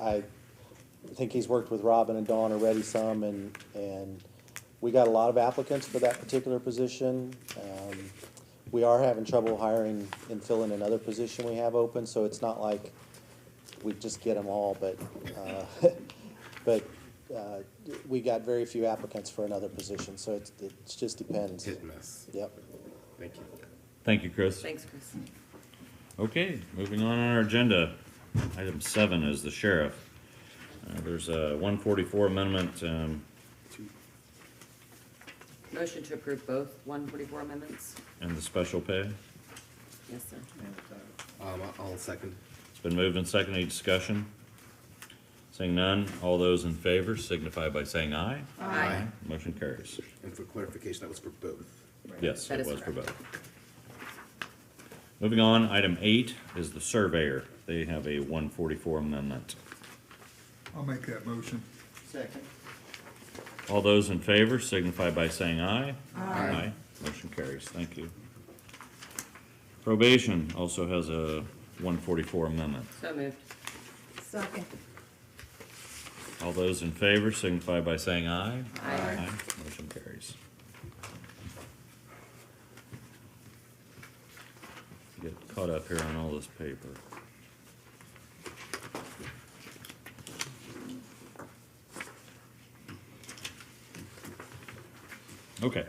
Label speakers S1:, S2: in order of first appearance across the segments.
S1: I think he's worked with Robin and Dawn already some, and, and we got a lot of applicants for that particular position. Um, We are having trouble hiring and filling another position we have open, so it's not like we just get them all, but, uh, but, uh, we got very few applicants for another position, so it's, it just depends.
S2: Hit miss.
S1: Yep.
S2: Thank you.
S3: Thank you, Chris.
S4: Thanks, Chris.
S3: Okay, moving on on our agenda. Item seven is the sheriff. Uh, there's a one forty-four amendment, um,
S4: Motion to approve both one forty-four amendments?
S3: and the special pay.
S4: Yes, sir.
S2: Um, I- I'll second.
S3: It's been moved and seconded. Any discussion? Seeing none, all those in favor signify by saying aye.
S4: Aye.
S3: Motion carries.
S2: And for clarification, that was for both.
S3: Yes,
S4: That
S3: it
S4: is
S3: was for
S4: correct.
S3: both. Moving on, item eight is the surveyor. They have a one forty-four amendment.
S5: I'll make that motion.
S3: All those in favor signify by saying aye. Aye. Motion carries, thank you. Probation also has a one forty-four amendment.
S4: So moved.
S6: Second.
S3: All those in favor signify by saying aye.
S4: Aye.
S3: Motion carries. Get caught up here on all this paper. Okay.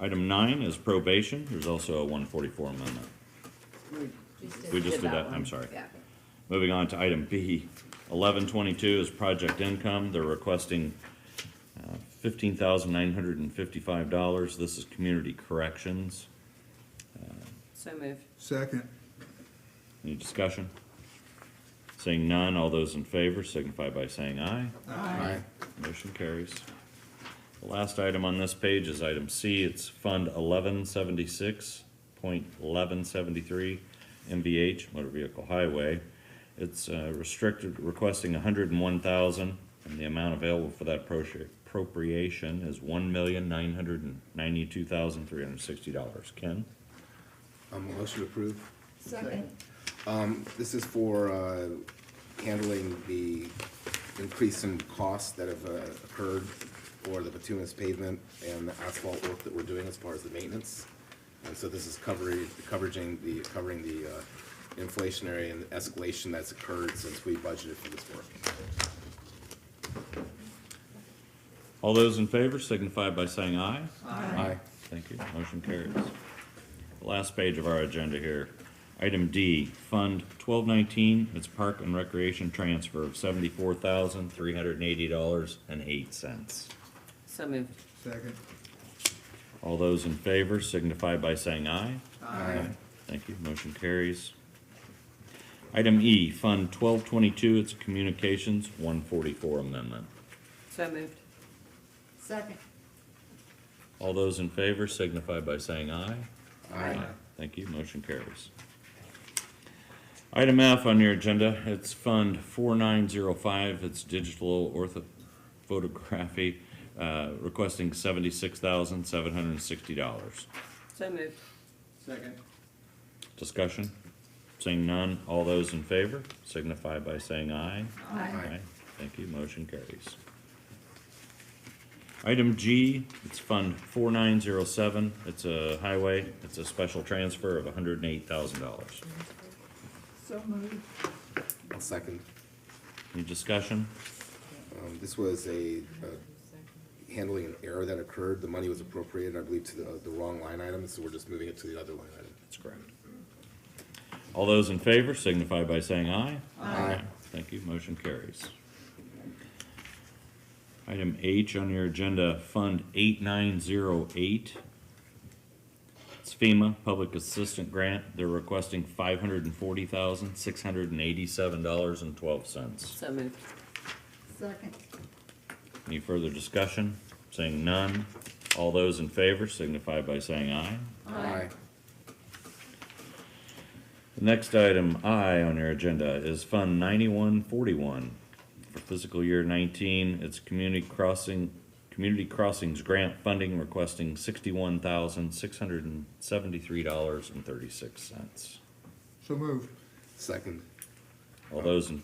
S3: Item nine is probation. There's also a one forty-four amendment. We just did that, I'm
S4: one.
S3: sorry.
S4: Yeah.
S3: Moving on to item B, eleven twenty-two is project income. They're requesting fifteen thousand nine hundred and fifty-five dollars. This is community corrections.
S4: So moved.
S5: Second.
S3: Any discussion? Seeing none, all those in favor signify by saying aye.
S2: Aye.
S3: Motion carries. The last item on this page is item C. It's Fund eleven seventy-six point eleven seventy-three MVH Motor Vehicle Highway. It's uh, restricted, requesting a hundred and one thousand, and the amount available for that appro- appropriation is one million nine hundred and ninety-two thousand three hundred and sixty dollars. Ken?
S2: Um, motion approved.
S6: Second.
S2: This is for, uh, handling the increase in costs that have uh, occurred for the bituminous pavement and the asphalt work that we're doing as far as the maintenance. And so this is covering, covering the, covering the, uh, inflationary and escalation that's occurred since we budgeted for this work.
S3: All those in favor signify by saying aye.
S2: Aye.
S3: Thank you. Motion carries. The Last page of our agenda here. Item D, Fund twelve nineteen, it's Park and Recreation Transfer of seventy-four thousand, three hundred and eighty dollars and eight cents.
S4: So moved.
S5: Second.
S3: All those in favor signify by saying aye.
S2: Aye.
S3: Thank you. Motion carries. Item E, Fund twelve twenty-two, it's Communications, one forty-four amendment.
S4: So moved.
S6: Second.
S3: All those in favor signify by saying aye.
S2: Aye.
S3: Thank you, motion carries. Item F on your agenda, it's Fund 4905, it's digital orthophotography, uh, requesting $76,760.
S4: So moved.
S5: Second.
S3: Discussion? Seeing none, all those in favor signify by saying aye.
S2: Aye.
S3: Thank you, motion carries. Item G, it's Fund 4907, it's a highway, it's a special transfer of $108,000.
S6: So moved.
S2: I'll second.
S3: Any discussion?
S2: Um, This was a, a handling an error that occurred. The money was appropriated, I believe, to the, the wrong line item, so we're just moving it to the other line item.
S3: That's correct. All those in favor signify by saying aye.
S2: Aye.
S3: Thank you, motion carries. Item H on your agenda, Fund 8908. It's FEMA Public Assistant Grant. They're requesting $540,687.12.
S4: So moved.
S6: Second.
S3: Any further discussion? Saying none. All those in favor signify by saying aye.
S2: Aye.
S3: The next item I on your agenda is Fund 9141. For fiscal year 19, it's Community Crossing, Community Crossings Grant Funding requesting $61,673.36.
S5: So moved.
S2: Second.
S3: All those in